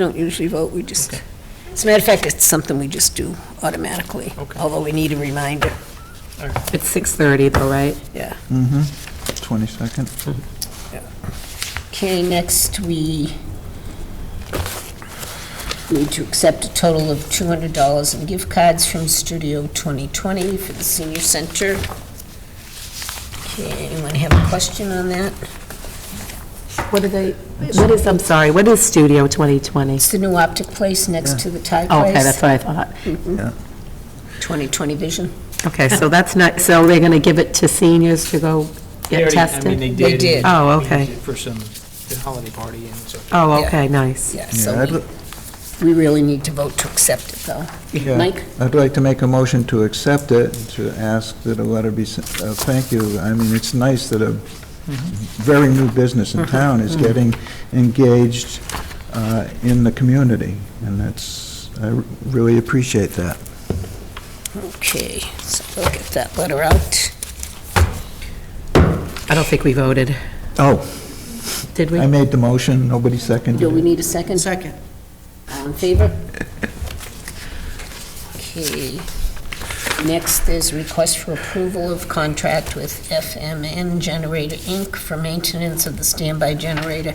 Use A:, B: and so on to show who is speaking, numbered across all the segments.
A: don't usually vote, we just, as a matter of fact, it's something we just do automatically,
B: Okay.
A: although we need a reminder,
C: It's 6:30 though, right?
A: yeah.
D: Mm-hmm, 22nd.
A: Okay, next, we need to accept a total of $200 in gift cards from Studio 2020 for the senior center. Okay, anyone have a question on that?
C: What are they, what is, I'm sorry, what is Studio 2020?
A: It's the new optic place next to the Thai
C: Oh,
A: place.
C: okay, that's what I thought.
A: 2020 Vision.
C: Okay, so that's not, so they're going to give it to seniors to go
B: They already- I
C: get
B: mean,
C: tested?
B: they
A: They
B: did.
A: did.
C: Oh,
B: We used
C: okay.
B: it For some, the holiday party and so.
C: Oh,
A: Yeah.
C: okay, nice.
A: Yeah,
D: Yeah,
A: so
D: I'd-
A: we- we really need to vote to accept it, though.
D: Yeah.
A: Mike?
D: I'd like to make a motion to accept it, to ask that a letter be sent, uh, thank you. I mean, it's nice that a
A: Mm-hmm.
D: very new business in town is getting engaged uh, in the community, and that's, I r- really appreciate that.
A: Okay, so we'll get that letter out.
C: I don't think we voted,
D: Oh,
C: did
D: I
C: we?
D: made the motion, nobody seconded
A: Do we
D: it.
A: need a second? Second. All in favor? Okay. Next is request for approval of contract with FMN Generator, Inc. for maintenance of the standby generator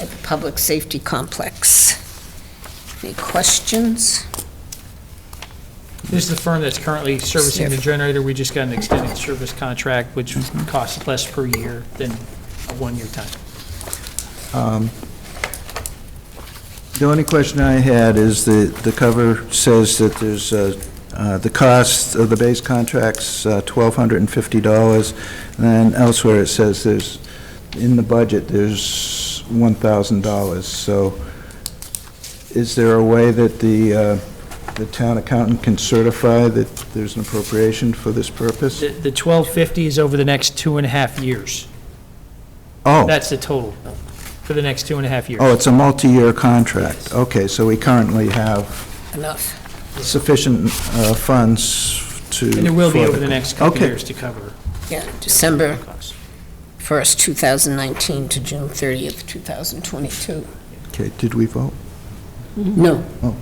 A: at the Public Safety Complex. Any questions?
B: This is the firm that's currently servicing the
A: Sniff.
B: generator. We just got an extended service contract, which costs less per year than a one-year time.
D: Um, The only question I had is the, the cover says that there's, uh, uh, the cost of the base contract's uh, $1,250, and then elsewhere it says there's, in the budget, there's $1,000. So is there a way that the, uh, the town accountant can certify that there's an appropriation for this purpose?
B: The the 1250 is over the next two and a half years.
D: Oh,
B: That's the total, for the next two and a half years.
D: oh, it's a multi-year contract. Okay, so we currently have
A: Enough.
D: sufficient uh, funds to...
B: And there will be
D: for
B: over the next couple
D: Okay.
B: of years to cover
A: Yeah, December
B: costs.
A: 1st, 2019 to June 30th, 2022.
D: Okay, did we vote?
A: No.
D: Oh.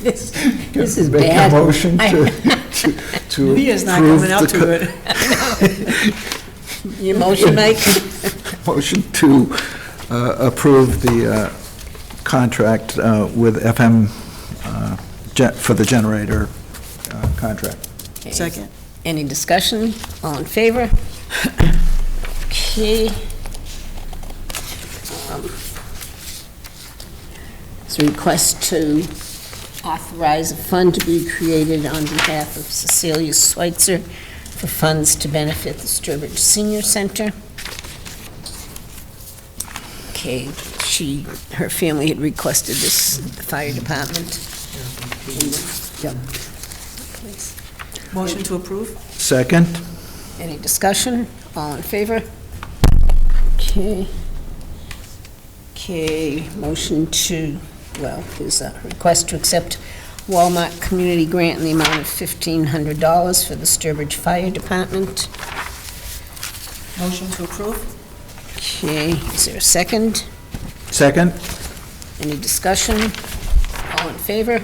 A: This this is
D: Make
A: bad.
D: a motion
A: I-
D: to, to- to
C: Leah's not
D: approve
C: coming up
D: the
C: to
D: co-
A: Your motion, Mike?
D: Motion to uh, approve the uh, contract uh, with FM uh, gen- for the generator uh, contract.
A: Second. Any discussion? All in favor? Okay. Um, It's a request to authorize a fund to be created on behalf of Cecilia Schweitzer for funds to benefit the Sturbridge Senior Center. Okay, she, her family had requested this, the fire department. Yep. Please.
E: Motion to approve?
D: Second?
A: Any discussion? All in favor? Okay. Okay, motion to, well, there's a request to accept Walmart Community Grant in the amount of $1,500 for the Sturbridge Fire Department.
E: Motion to approve?
A: Okay, is there a second?
D: Second?
A: Any discussion? All in favor?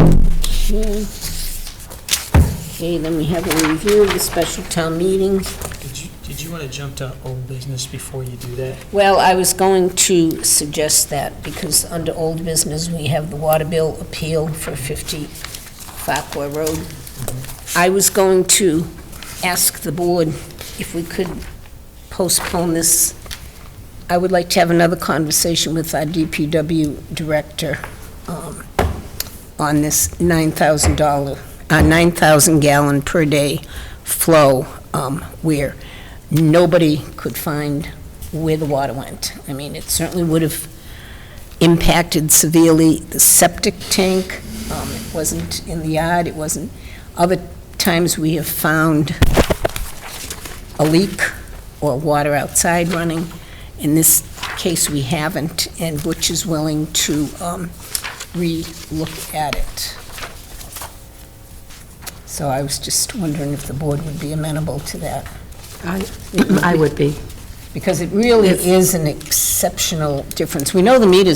A: Okay. Okay, then we have a review of the special town meeting.
B: Did you, did you want to jump to old business before you do that?
A: Well, I was going to suggest that, because under old business, we have the water bill appeal for 50 Fakwa Road. I was going to ask the board if we could postpone this. I would like to have another conversation with our DPW director um, on this $9,000, uh, 9,000 gallon per day flow, um, where nobody could find where the water went. I mean, it certainly would have impacted severely the septic tank. Um, It wasn't in the yard, it wasn't, other times we have found a leak or water outside running. In this case, we haven't, and Butch is willing to um, re-look at it. So I was just wondering if the board would be amenable to that
C: I I would be.
A: because it really is an exceptional difference. We know the meters